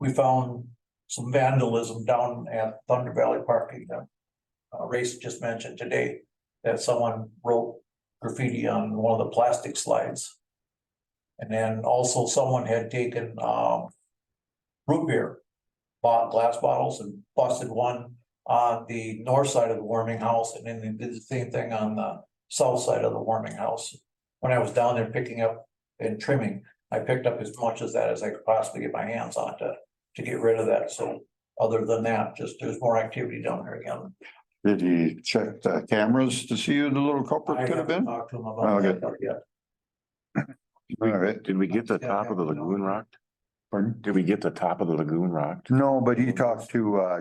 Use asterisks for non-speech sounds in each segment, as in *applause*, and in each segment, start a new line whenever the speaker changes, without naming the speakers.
we found some vandalism down at Thunder Valley Parking that. Uh, Race just mentioned today that someone wrote graffiti on one of the plastic slides. And then also someone had taken, um. Root beer, bought glass bottles and busted one on the north side of the warming house and then they did the same thing on the south side of the warming house. When I was down there picking up and trimming, I picked up as much as that as I could possibly get my hands on to, to get rid of that, so. Other than that, just there's more activity down there again.
Did he check the cameras to see who the little culprit
I
could have
haven't
been?
Talked to him about
Okay.
that part yet.
All right,
Did we get the
Yeah,
top
yeah,
of the
we don't-
lagoon rocked?
pardon?
Did we get the top of the lagoon rocked?
No, but he talked to, uh,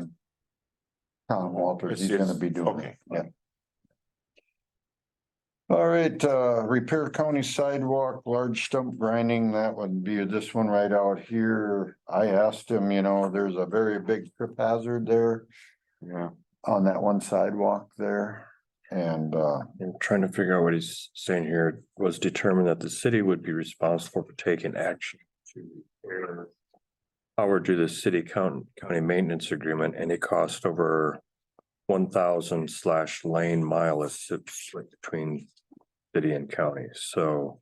Tom Walters,
It's-
he's gonna
it's-
be doing it,
okay.
yeah. All right, uh, repair county sidewalk, large stump grinding, that would be this one right out here. I asked him, you know, there's a very big trip hazard there
Yeah,
on that one sidewalk there. And, uh,
And trying to figure out what he's saying here was determined that the city would be responsible for taking action to repair power due to the city county, county maintenance agreement, any cost over one thousand slash lane mile is split between city and county, so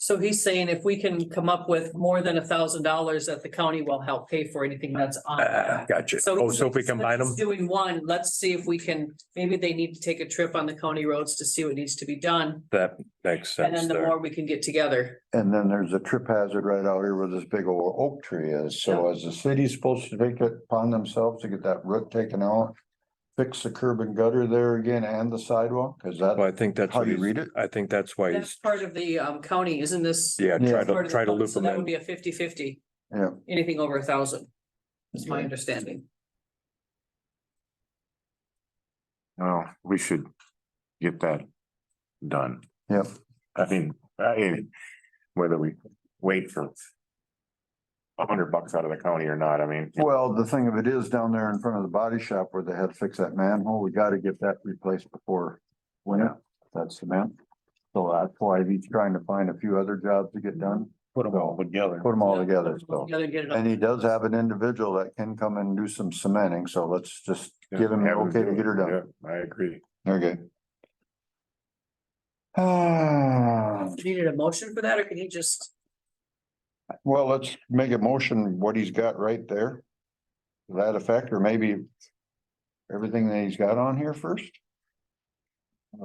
So he's saying if we can come up with more than a thousand dollars that the county will help pay for anything that's on.
ah,
that.
gotcha. Oh, so if we
he's-
combine them,
he's Doing one, let's see if we can, maybe they need to take a trip on the county roads to see what needs to be done.
that makes
And
sense
then the
there.
more we can get together.
And then there's a trip hazard right out here where this big old oak tree is, so is the city supposed to take it upon themselves to get that root taken out? Fix the curb and gutter there again and the sidewalk, is that
Well, I think that's.
how
what
you
he's-
read it?
I think that's why
That's
he's,
part of the um county, isn't this?
yeah,
Yeah.
try
part
to,
of the
try to
county?
loop
So
them
that would
in.
be a 50 50.
Yeah.
Anything over a thousand, is my
Okay.
understanding.
no, we should get that done.
Yep.
I mean, I, whether we wait for a hundred bucks out of the county or not, I mean.
Well, the thing of it is down there in front of the body shop where they had to fix that manhole, we gotta get that replaced before winter, that's the man. So that's why he's trying to find a few other jobs to get done,
Put them all together.
put them all together, so.
Together, get it all-
And he does have an individual that can come and do some cementing, so let's just give him, the okay, to get her done.
I agree.
Okay. Ah,
Needed a motion for that, or can he just?
*sighs* well, let's make a motion, what he's got right there. To That effect, or maybe everything that he's got on here first? Uh,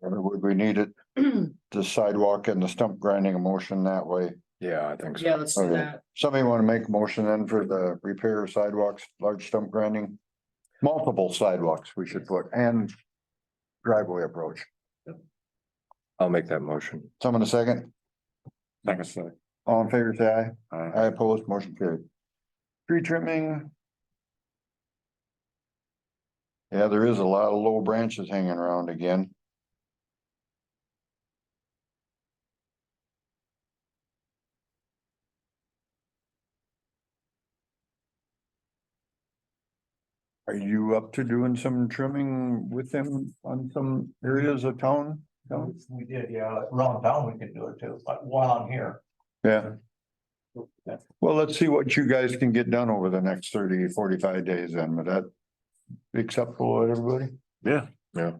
or would we need it, the sidewalk and the stump grinding a motion that way?
Yeah, I think so.
Yeah, let's do
Okay.
that.
Somebody want to make a motion then for the repair of sidewalks, large stump grinding? Multiple sidewalks we should put and driveway approach.
I'll make that motion.
Someone a second?
Like I said,
All in favor, say aye.
I,
I oppose, motion carried. Tree trimming. Yeah, there is a lot of low branches hanging around again. Are you up to doing some trimming with them on some areas of town? No?
We did, yeah, around town we could do it too, but one on here.
Yeah.
Yeah.
Well, let's see what you guys can get done over the next 30, 45 days then, but that acceptable to everybody?
yeah,
Yeah.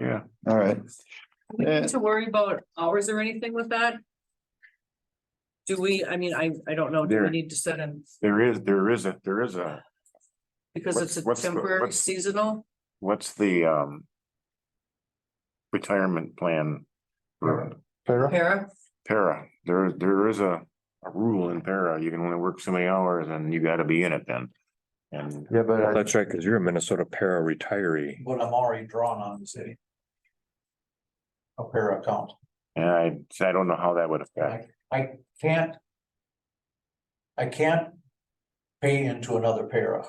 yeah.
All right,
We
Eh.
need *laughs* to worry about hours or anything with that? Do we, I mean, I, I don't know, do we
There.
need to set in,
There is, there is a, there is a,
because it's a
What's- what's the-
temporary
what's-
seasonal?
what's the, um, retirement plan for
Sarah?
Para,
para? There, there is a, a rule in para. You can only work so many hours and you gotta be in it then. And
Yeah, but I-
That's right, because you're a Minnesota para retiree.
But I'm already drawn on the city. A pair account,
And I, so I don't know how that would affect.
I can't. I can't pay into another para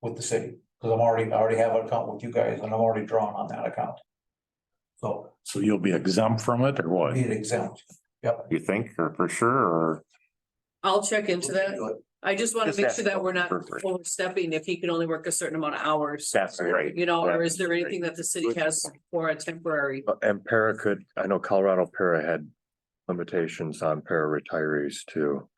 with the city, because I'm already, I already have an account with you guys, and I'm already drawn on that account. So,
So you'll be exempt from it or what?
be exempt, yep.
You think, or for sure, or?
I'll check into that. I just want
Just
to make
ask
sure that we're not
Perfect.
overstepping if he can only work a certain amount of hours.
That's right.
You know, or is there
That's right.
anything that the city has for a temporary?
And para could, I know Colorado para had limitations on para retirees too.